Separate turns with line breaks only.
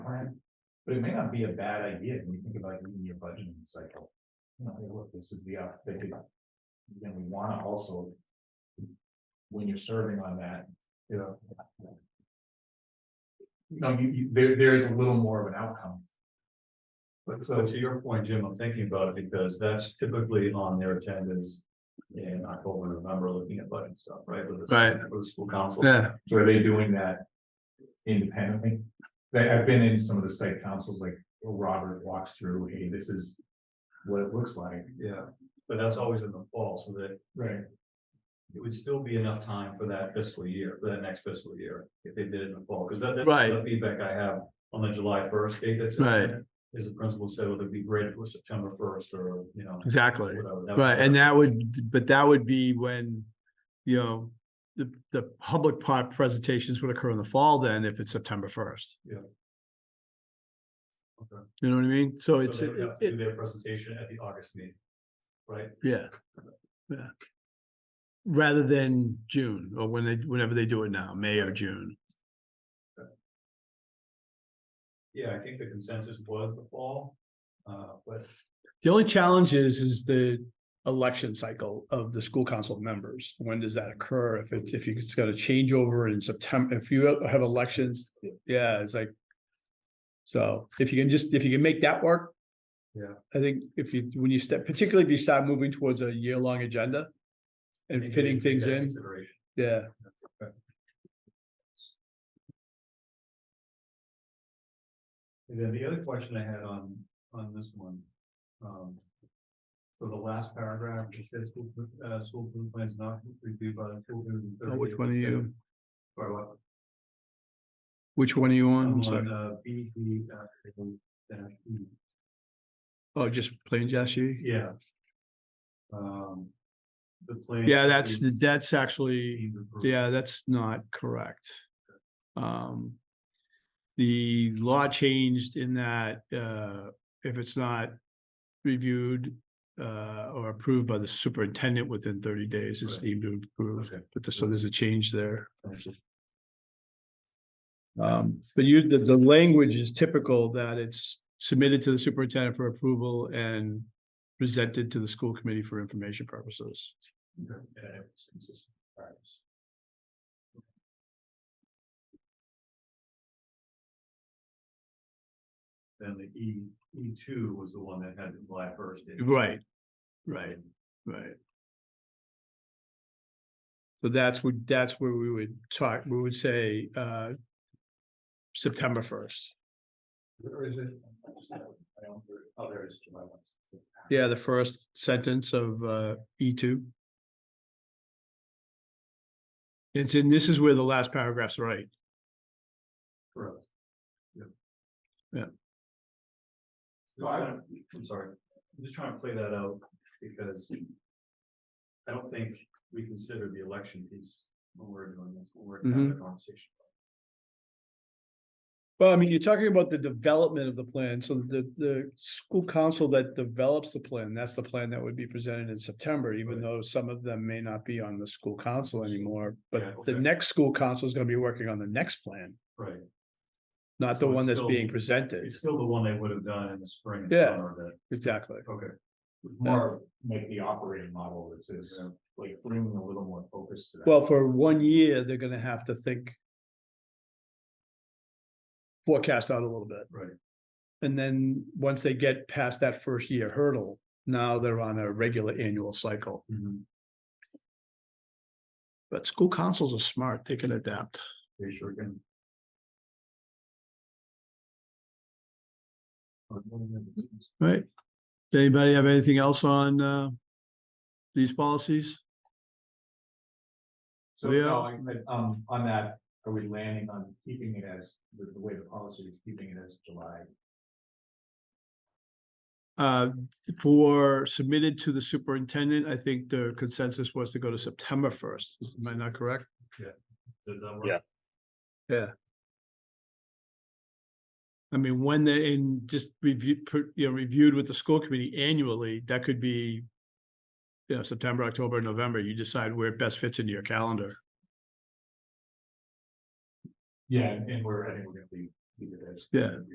But it may not be a bad idea when you think about even your budgeting cycle. You know, hey, look, this is the, op- they could- then we wanna also. When you're serving on that, you know. No, you, you, there, there is a little more of an outcome.
But so to your point, Jim, I'm thinking about it because that's typically on their agendas in October, November, looking at budget stuff, right? with the-
Right.
With the school council.
Yeah,
So are they doing that independently? They, I've been in some of the site councils, like Robert walks through, hey, this is what it looks like.
Yeah, but that's always in the fall, so that
Right.
it would still be enough time for that fiscal year, for that next fiscal year, if they did it in the fall, because that, that's
Right.
the feedback I have on the July first date that's. in
Right.
there, Is the principal said, well, it'd be great if it was September first or, you know.
exactly.
whatever. That would-
Right, and that would, but that would be when, you know, the, the public part presentations would occur in the fall then, if it's September first.
Yeah. Okay.
You know what I mean? So
So
it's,
they
it,
would have to
it,
do their presentation at the August meeting. Right?
yeah, yeah. Rather than June, or when they, whenever they do it now, May or June.
Yeah, I think the consensus was the fall, uh, but
The only challenge is, is the election cycle of the school council members. When does that occur? If it, if it's got a changeover in September, if you have elections, yeah, it's like. So if you can just, if you can make that work.
Yeah.
I think if you, when you step, particularly if you start moving towards a year-long agenda. And
maybe
fitting
take
things
that
in,
Consideration.
yeah,
And then the other question I had on, on this one, um. For the last paragraph, it says school, uh, school food plans not reviewed by the school. board in
Oh,
30
which
days
one are you,
Or what?
which one are you on?
I'm
I'm sorry.
on, uh, B, D, uh, dash E.
Oh, just plain Jesse?
Yeah. Um. The plan.
Yeah, that's,
is
that's actually.
deemed approved.
Yeah, that's not correct. Um, the law changed in that, uh, if it's not reviewed, uh, or approved by the superintendent within thirty days, it's
Right.
deemed to approve.
Okay.
But the- so there's a change there.
Thank you.
Um, but you, the, the language is typical that it's submitted to the superintendent for approval and presented to the school committee for information purposes.
Okay, yeah, it's consistent practice. Then the E, E two was the one that had the July first. date.
Right, right. Right. So that's what, that's where we would talk, we would say, uh. September first.
Where is it? I just have it. I don't- Oh, there it is July one.
Yeah, the first sentence of, uh, E two. It's in, this is where the last paragraph's right.
Correct. Yep.
Yeah.
So I, I'm sorry, I'm just trying to play that out because I don't think we consider the election piece when we're doing this, when we're
Mm-hmm.
having the conversation.
Well, I mean, you're talking about the development of the plan, so the, the school council that develops the plan, that's the plan that would be presented in September, even
Right.
though some of them may not be on the school council anymore,
Yeah,
but the
okay.
next school council is gonna be working on the next plan,
Right.
not the
So it's
one that's
still-
being presented.
It's still the one they would have done in the spring and
Yeah.
summer
Exactly.
that, okay.
More like the operating model that says, like bringing a little more focus to that.
Well, for one year, they're gonna have to think forecast out a little bit.
Right,
And then, once they get past that first year hurdle, now they're on a regular annual cycle.
Mhm.
But school councils are smart, they can adapt.
they sure can.
Right. Does anybody have anything else on uh these policies?
So,
Yeah.
no, I- I- um, on that, are we landing on keeping it as, the, the way the policy is keeping it as July?
Uh, for submitted to the superintendent, I think the consensus was to go to September first. Am I not correct?
Does that work?
Yeah.
I mean, when they're in just review, per- you know, reviewed with the school committee annually, that could be you know, September, October, November, you decide where it best fits into your calendar.
Yeah, and we're, I think we're gonna leave, leave it as.
Yeah.